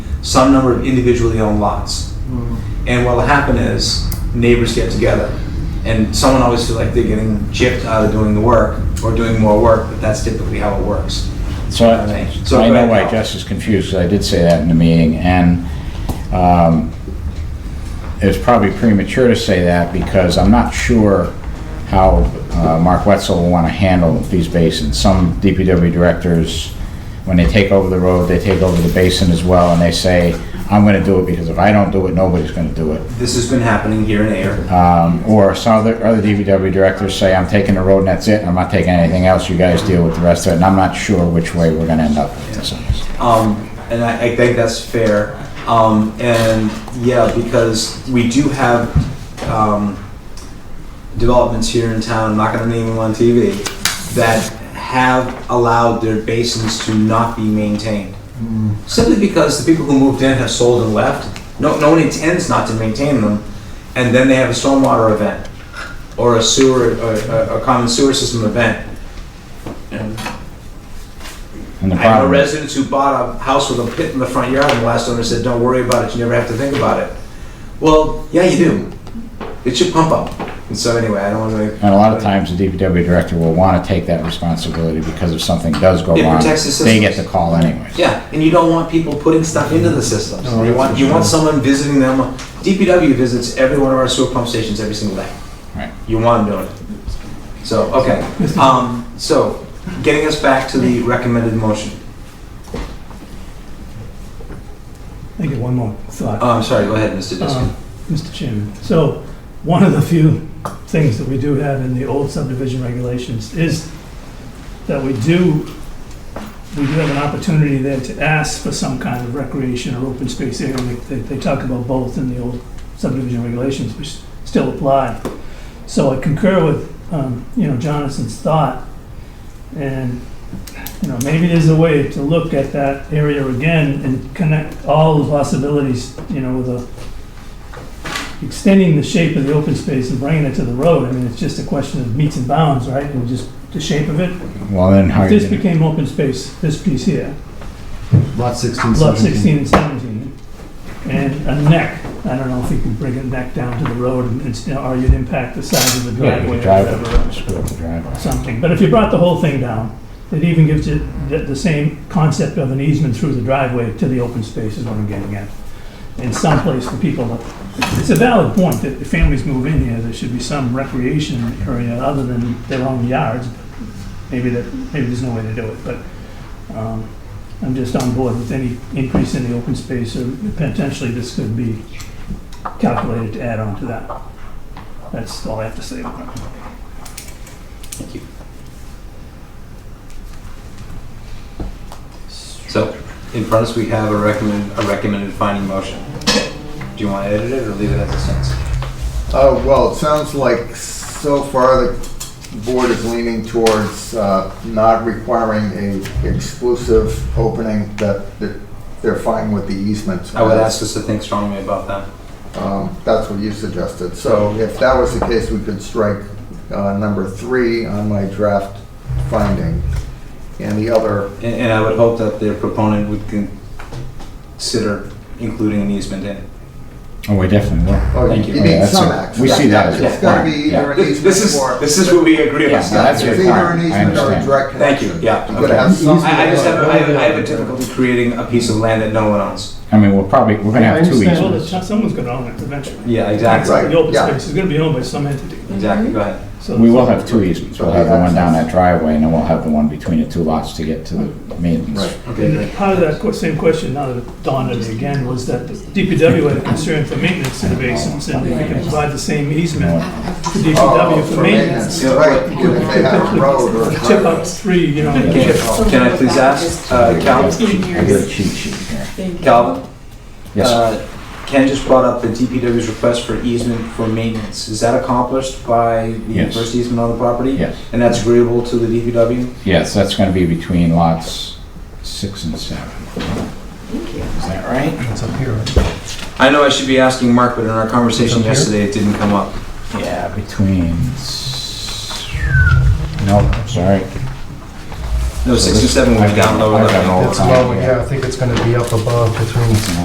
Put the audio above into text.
some number of individually owned lots. And what'll happen is neighbors get together and someone always feels like they're getting chipped out of doing the work or doing more work, but that's typically how it works. So Okay. I, so I So go know ahead, why Al. Jess is confused, 'cause I did say that in the meeting, and um, it's probably premature to say that, because I'm not sure how uh, Mark Wetzel will want to handle these basins. Some DPW directors, when they take over the road, they take over the basin as well, and they say, I'm going to do it, because if I don't do it, nobody's going to do it. This has been happening here in Air. Um, Or some other, other DPW directors say, I'm taking the road and that's it, I'm not taking anything else, you guys deal with the rest of it, and I'm not sure which way we're going to end up with this. Um, and I, I think that's fair. Um, and yeah, because we do have, um, developments here in town, I'm not gonna name them on TV, that have allowed their basins to not be maintained. Simply because the people who moved in have sold and left. No, no one intends not to maintain them. And then they have a stormwater event or a sewer, a, a common sewer system event. And And the I know problem, residents who bought a house with a pit in the front yard, and the last owner said, "Don't worry about it. You never have to think about it." Well, yeah, you do. It's your pump up. And so anyway, I don't want to. and a lot of times the DPW director will want to take that responsibility because if something does go It wrong, protects the they get the systems. call anyways. Yeah, and you don't want people putting stuff into the systems. No, you that's want for you want sure. someone visiting them. DPW visits every one of our sewer pump stations every single day. Right. You want them doing it. So okay. Um, so getting us back to the recommended motion. I get one more thought. Oh, I'm sorry. Go ahead, Mr. Diskin. Uh, Mr. Chairman, so one of the few things that we do have in the old subdivision regulations is that we do, we do have an opportunity there to ask for some kind of recreation or open space area. They, they talk about both in the old subdivision regulations, which still apply. So I concur with, um, you know, Jonathan's thought. And, you know, maybe there's a way to look at that area again and connect all the possibilities, you know, with a extending the shape of the open space and bringing it to the road, I mean, it's just a question of meets and bounds, right? And just the shape of it. Well, then how If are you this gonna, became open space, this piece here, Lot 16, lot 17. 16 and 17, and a neck, I don't know if you can bring a neck down to the road and, it's- or you'd impact the size of the yeah, driveway the or driveway, whatever, screw up the driveway. something. But if you brought the whole thing down, it even gives it the, the same concept of an easement through the driveway to the open space is what I'm getting at. In some place for people, it's a valid point that if families move in here, there should be some recreation area other than their own yards. Maybe that, maybe there's no way to do it, but, um, I'm just on board with any increase in the open space or potentially this could be calculated to add on to that. That's all I have to say about it. So, in front of us, we have a recommend, a recommended finding motion. Do you want to edit it or leave it as it stands? Uh, well, it sounds like so far the board is leaning towards, uh, not requiring a exclusive opening that, that they're fine with the easements. I would ask us to think strongly about that. Um, that's what you suggested. So if that was the case, we could strike, uh, number three on my draft finding. And the other, And, and I would hope that their proponent would con- consider including an easement in. it. Oh, we definitely will. oh, Thank you you. you Yeah, need that's some a- access. we see that as a It's gotta be requirement, yeah. either an This this is, easement or, this is where we agree Yeah, about no, stuff. that's it's your either an requirement, I easement or a understand. direct Thank connection. you, yeah. You gotta Okay. have some. I, I just have, I have, I have a difficulty creating a piece of land that no one owns. I mean, we'll probably, we're gonna I have two understand. Well, easements. it's- someone's gonna own it eventually. Yeah, exactly, Right. The open yeah. space is gonna be owned by some entity. exactly, go ahead. So- We will have two easements, we'll have the one down Access. that driveway, and then we'll have the one between the two lots to get to the maintenance. Right. Okay, And great. part of that que- same question, now that it dawned on me again, was that the DPW had a concern for maintenance in the basins, and if we can provide the same easement to DPW Oh, for maintenance, Yeah, Right, even if they have a road or. a tip driveway. up three, you know, Can chip- can I please ask, uh, Calvin? I get a cheat sheet here. Calvin? Yes, sir. Uh, Ken just brought up the DPW's request for easement for maintenance. Is that accomplished by the Yes. first easement on the property? yes, And that's agreeable to the DPW? yes, that's gonna be between lots six and seven. Is that right? It's up here. I know I should be asking Mark, but in our conversation Up here? yesterday, it didn't come up. Yeah, between, s- no, sorry. No, six and seven went down lower I've got level. all the It's time, low, yeah. yeah, I think it's gonna be up above between